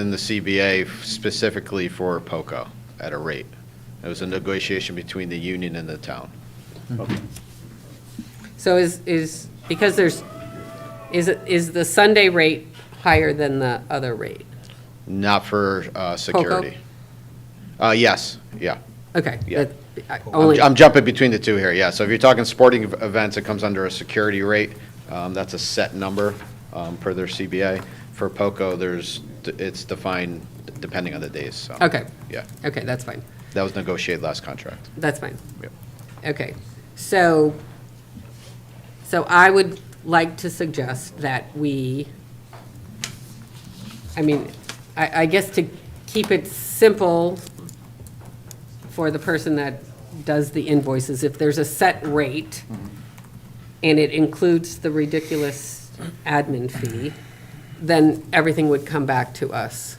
in the CBA specifically for POCO at a rate. It was a negotiation between the union and the town. So is, is, because there's, is, it- is the Sunday rate higher than the other rate? Not for uh, security. Uh, Yes, yeah. Okay. Yeah. that- I- I'm Only, I'm jumping between the two here, yeah. So if you're talking sporting ev- events, it comes under a security rate. Um, That's a set number um, per their CBA. For POCO, there's, it's defined depending on the days, so. okay, Yeah, okay, that's fine, that was negotiated last contract. that's fine. Yep. Okay, so, so I would like to suggest that we, I mean, I, I guess to keep it simple for the person that does the invoices, if there's a set rate and it includes the ridiculous admin fee, then everything would come back to us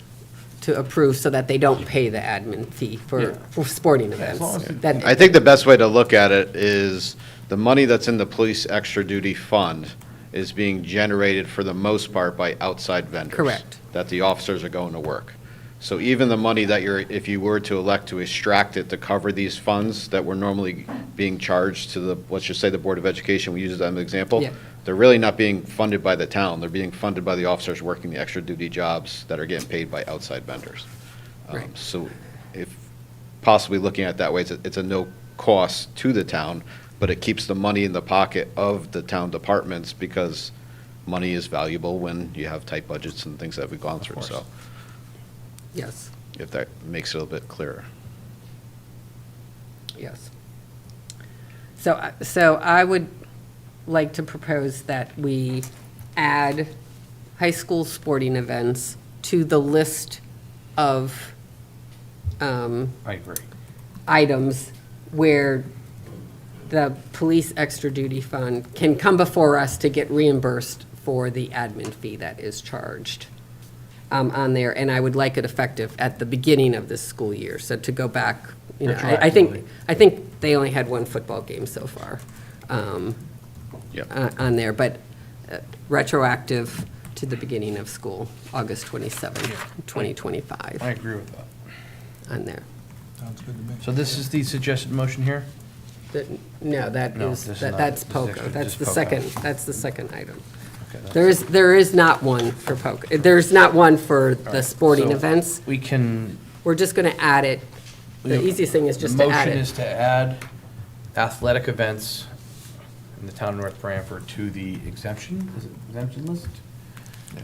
to approve so that they don't pay the admin fee for, for sporting events. That- I think the best way to look at it is the money that's in the police extra duty fund is being generated for the most part by outside vendors. Correct. That the officers are going to work. So even the money that you're, if you were to elect to extract it to cover these funds that were normally being charged to the, let's just say the Board of Education, we use that as an example. Yeah. They're really not being funded by the town. They're being funded by the officers working the extra duty jobs that are getting paid by outside vendors. Um, Right. So if possibly looking at it that way, it's a, it's a no cost to the town, but it keeps the money in the pocket of the town departments because money is valuable when you have tight budgets and things that we've gone through. So Yes, if that makes it a little bit clearer. yes. So, I- so I would like to propose that we add high school sporting events to the list of um, I agree. items where the police extra duty fund can come before us to get reimbursed for the admin fee that is charged um, on there, and I would like it effective at the beginning of this school year, so to go back, you know, I I think, Retroactively. I think they only had one football game so far um, Yep. uh, on there, but uh, retroactive to the beginning of school, August 27, 2025, I agree with that. on there. Sounds good to me. So this is the suggested motion here? That- No, that No, is, this is that- not- that's this is POCO. extra- That's just the POCO. second, that's the second item. Okay, that's- There is, there is not one for POCO. There's not one for the sporting So events. We can. We're just going to add it. The easiest thing is just to add Motion it. is to add athletic events in the town of North Branford to the exemption, is it exemption list?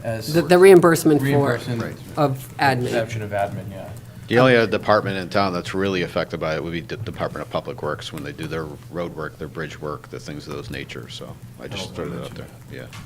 As The- The reimbursement for, reimbursement. of admin. Exemption of admin, yeah. The only other department in town that's really affected by it would be the Department of Public Works when they do their road work, their bridge work, the things of those nature. So I just Oh, throw I that out there. mentioned Yeah.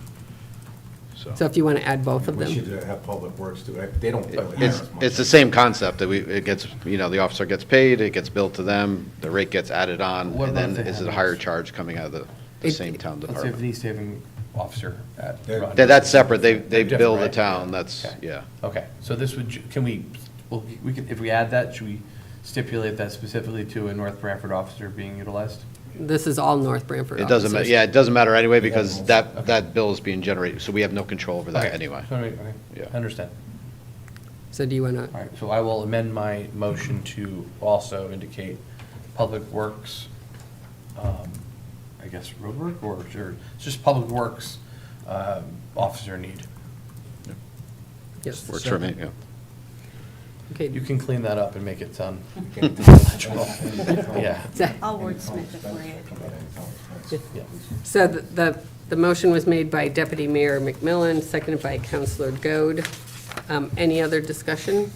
So. So if you want to add both of We should them. have Public Works do it. They don't really have It's, as much. it's the same concept, that we, it gets, you know, the officer gets paid, it gets billed to them, the rate gets added on, What and then about if they is it a have higher those? charge coming out of the, the It- same town Let's say if department? the saving officer at. They're- That- That's separate, they, they They're different, bill the right? town, that's, Okay. yeah. Okay, so this would, ju- can we, well, we can, if we add that, should we stipulate that specifically to a North Branford officer being utilized? This is all North Branford It doesn't, ma- officers. yeah, it doesn't matter anyway, because Yeah. that, that bill is being generated, so we have no control over that Okay, anyway. just wanna make- okay, Yeah. Understand. So do you want to, All right, so I will amend my motion to also indicate Public Works, um, I guess, road work or, or it's just Public Works um, officer need. yes. Works for me, yeah. Okay. You can clean that up and make it sound legible. Yeah, So- I'll wordsmith it for you. yeah. So the- the, the motion was made by Deputy Mayor McMillan, seconded by Councilor Goad. Um, Any other discussion?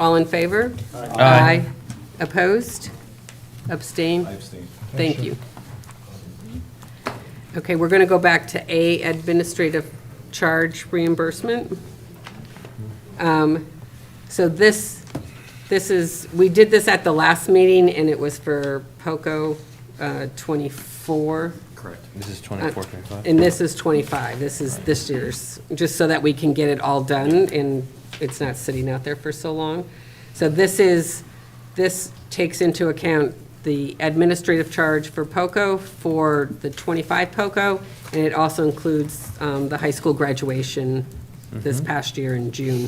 All in favor? Aye. Opposed? Abstained? I abstain. Thank you. Okay, we're going to go back to A, administrative charge reimbursement. Um, So this, this is, we did this at the last meeting, and it was for POCO uh, 24. Correct. This is 24, 25. And this is 25, this is this year's, just so that we can get it all done and it's not sitting out there for so long. So this is, this takes into account the administrative charge for POCO for the 25 POCO, and it also includes um, the high school graduation this past year in June.